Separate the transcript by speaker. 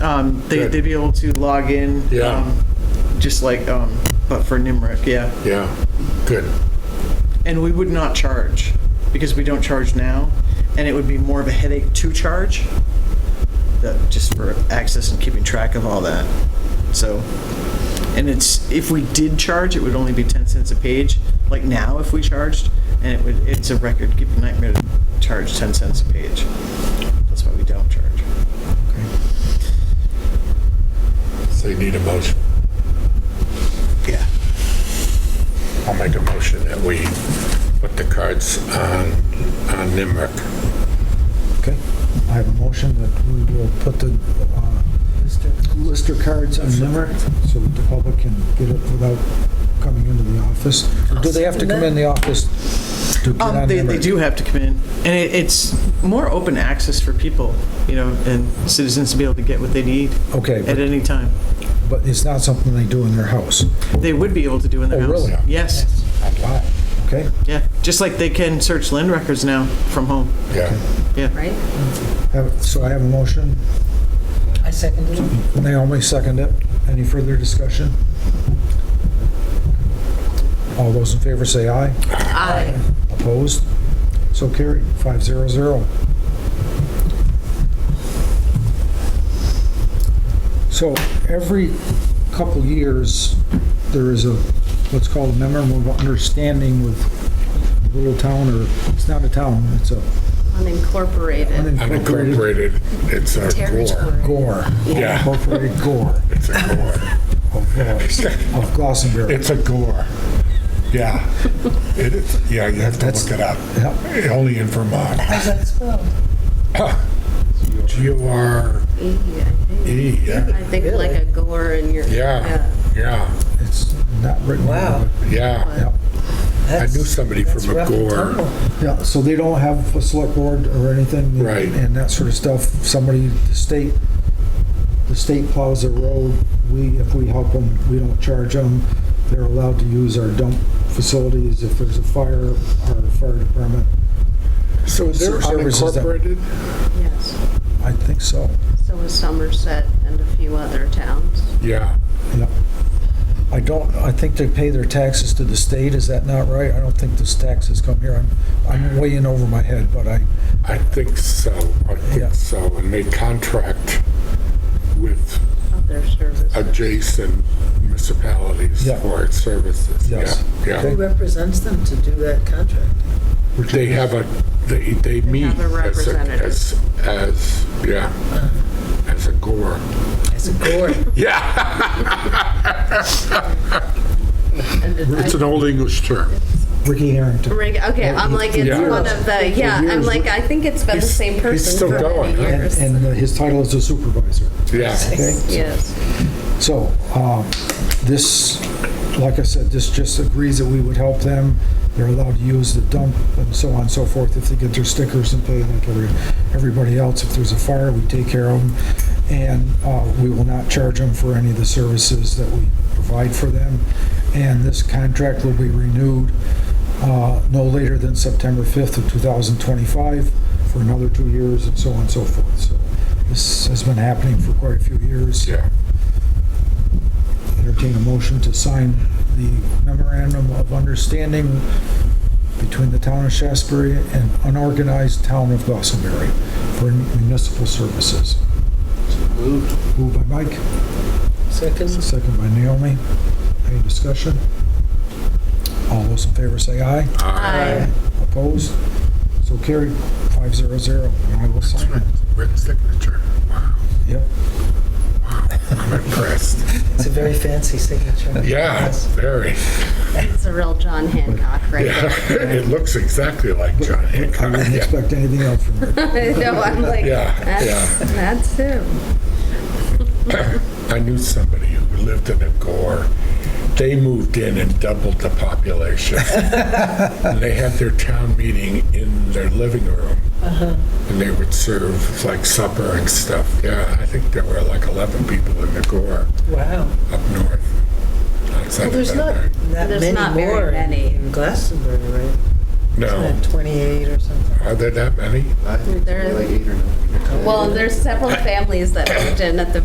Speaker 1: Um, they,
Speaker 2: Good.
Speaker 1: they'd be able to log in.
Speaker 2: Yeah.
Speaker 1: um, Just like, um, but for NIMRIC, yeah.
Speaker 2: Yeah, good.
Speaker 1: And we would not charge, because we don't charge now, and it would be more of a headache to charge, that, just for access and keeping track of all that. So, and it's, if we did charge, it would only be 10 cents a page, like now if we charged, and it would, it's a record, keep a nightmare to charge 10 cents a page. That's why we don't charge.
Speaker 2: So you need a motion.
Speaker 1: Yeah.
Speaker 2: I'll make a motion that we put the cards on, on NIMRIC.
Speaker 3: Okay, I have a motion that we will put the uh, lister cards on Limerick so that the public can get it without coming into the office. Or Do they have to come in the office to get
Speaker 1: Um,
Speaker 3: on
Speaker 1: they, they
Speaker 3: Limerick?
Speaker 1: do have to come in, and it, it's more open access for people, you know, and citizens to be able to get what they need
Speaker 3: Okay,
Speaker 1: at
Speaker 3: but-
Speaker 1: any time.
Speaker 3: but it's not something they do in their house.
Speaker 1: They would be able to do in their
Speaker 3: Oh,
Speaker 1: house.
Speaker 3: really?
Speaker 1: Yes,
Speaker 3: Wow, okay?
Speaker 1: yeah, just like they can search land records now from home.
Speaker 2: Yeah,
Speaker 4: right?
Speaker 3: Have- So I have a motion.
Speaker 4: I seconded it.
Speaker 3: Naomi, second it. Any further discussion? All those in favor say aye.
Speaker 4: Aye.
Speaker 3: Opposed? So carried, 500. So every couple years, there is a, what's called a memorandum of understanding with a little town, or it's not a town, it's a
Speaker 4: Unincorporated.
Speaker 3: unincorporated
Speaker 2: unincorporated, it's a gore.
Speaker 4: Territory.
Speaker 3: gore.
Speaker 2: Yeah.
Speaker 3: Incorporated gore
Speaker 2: It's a gore.
Speaker 3: of uh, of Glossonbury.
Speaker 2: It's a gore. Yeah. It is, yeah, you have to
Speaker 3: That's-
Speaker 2: look it up.
Speaker 3: Yep.
Speaker 2: Only in Vermont.
Speaker 4: How's that spelled?
Speaker 2: G O R
Speaker 4: E, I think.
Speaker 2: E, yeah,
Speaker 4: I think like a gore in your.
Speaker 2: yeah, yeah,
Speaker 3: It's not written.
Speaker 5: Wow.
Speaker 2: yeah.
Speaker 3: Yep.
Speaker 2: I knew somebody from a gore.
Speaker 3: Yeah, so they don't have a select board or anything?
Speaker 2: Right.
Speaker 3: And that sort of stuff. Somebody, the state, the state plows a road, we, if we help them, we don't charge them. They're allowed to use our dump facilities if there's a fire, our fire department.
Speaker 2: So is there
Speaker 3: Services that-
Speaker 2: unincorporated?
Speaker 4: Yes.
Speaker 3: I think so.
Speaker 4: So was Somerset and a few other towns.
Speaker 2: Yeah,
Speaker 3: Yeah. I don't, I think they pay their taxes to the state, is that not right? I don't think this taxes come here. I'm, I'm way in over my head, but I,
Speaker 2: I think so, I
Speaker 3: Yeah.
Speaker 2: think so. And they contract with
Speaker 4: Other services.
Speaker 2: adjacent municipalities
Speaker 3: Yeah.
Speaker 2: for its services.
Speaker 3: Yes.
Speaker 2: Yeah, yeah.
Speaker 5: Who represents them to do that contract?
Speaker 2: They have a, they, they meet
Speaker 4: have a
Speaker 2: as, a-
Speaker 4: representative.
Speaker 2: as, as, yeah, as a gore.
Speaker 5: It's a gore.
Speaker 2: Yeah,
Speaker 4: And it-
Speaker 2: it's an old English term.
Speaker 3: Ricky Harrington.
Speaker 4: Rig- Okay, I'm like, it's
Speaker 2: Yeah.
Speaker 4: one of the, yeah, I'm like, I think it's been the
Speaker 2: He's-
Speaker 4: same
Speaker 2: he's
Speaker 4: person
Speaker 2: still
Speaker 4: for
Speaker 2: going,
Speaker 4: many
Speaker 2: huh?
Speaker 3: And,
Speaker 4: years.
Speaker 3: and his title is a supervisor.
Speaker 2: Yeah,
Speaker 3: Okay?
Speaker 4: Yes.
Speaker 3: So, um, this, like I said, this just agrees that we would help them. They're allowed to use the dump and so on and so forth if they get their stickers and pay like every, everybody else. If there's a fire, we take care of them. And, uh, we will not charge them for any of the services that we provide for them. And this contract will be renewed, uh, no later than September 5th of 2025 for another two years and so on and so forth. So this has been happening for quite a few years
Speaker 2: yeah.
Speaker 3: entertain a motion to sign the memorandum of understanding between the town of Shasberry and unorganized town of Gossenbury for municipal services. Moved by Mike,
Speaker 5: Second,
Speaker 3: second by Naomi. Any discussion? All those in favor say aye.
Speaker 4: Aye.
Speaker 3: Opposed? So carried, 500, and I will sign it.
Speaker 2: Written signature. Wow,
Speaker 3: Yep.
Speaker 2: I'm impressed.
Speaker 5: it's a very fancy signature.
Speaker 2: Yeah, very.
Speaker 4: It's a real John Hancock right
Speaker 2: Yeah,
Speaker 4: there.
Speaker 2: it looks exactly like John
Speaker 3: I
Speaker 2: Hancock.
Speaker 3: wouldn't
Speaker 2: Yeah,
Speaker 3: expect anything else from you.
Speaker 4: I know, I'm like,
Speaker 2: Yeah,
Speaker 4: that's,
Speaker 2: yeah.
Speaker 4: that's him.
Speaker 2: I knew somebody who lived in a gore. They moved in and doubled the population. and they had their town meeting in their living room.
Speaker 5: Uh-huh.
Speaker 2: And they would serve like supper and stuff. Yeah, I think there were like 11 people in the gore
Speaker 5: Wow.
Speaker 2: up north. outside
Speaker 5: Well,
Speaker 2: of
Speaker 5: there's not
Speaker 2: Denver.
Speaker 5: that
Speaker 4: There's
Speaker 5: many
Speaker 4: not very
Speaker 5: more in-
Speaker 4: many.
Speaker 5: in Glastonbury, right?
Speaker 2: No.
Speaker 5: Isn't it 28 or something?
Speaker 2: Are there that many?
Speaker 6: I think it's only like eight or nine.
Speaker 4: Well, there's several families that moved in at the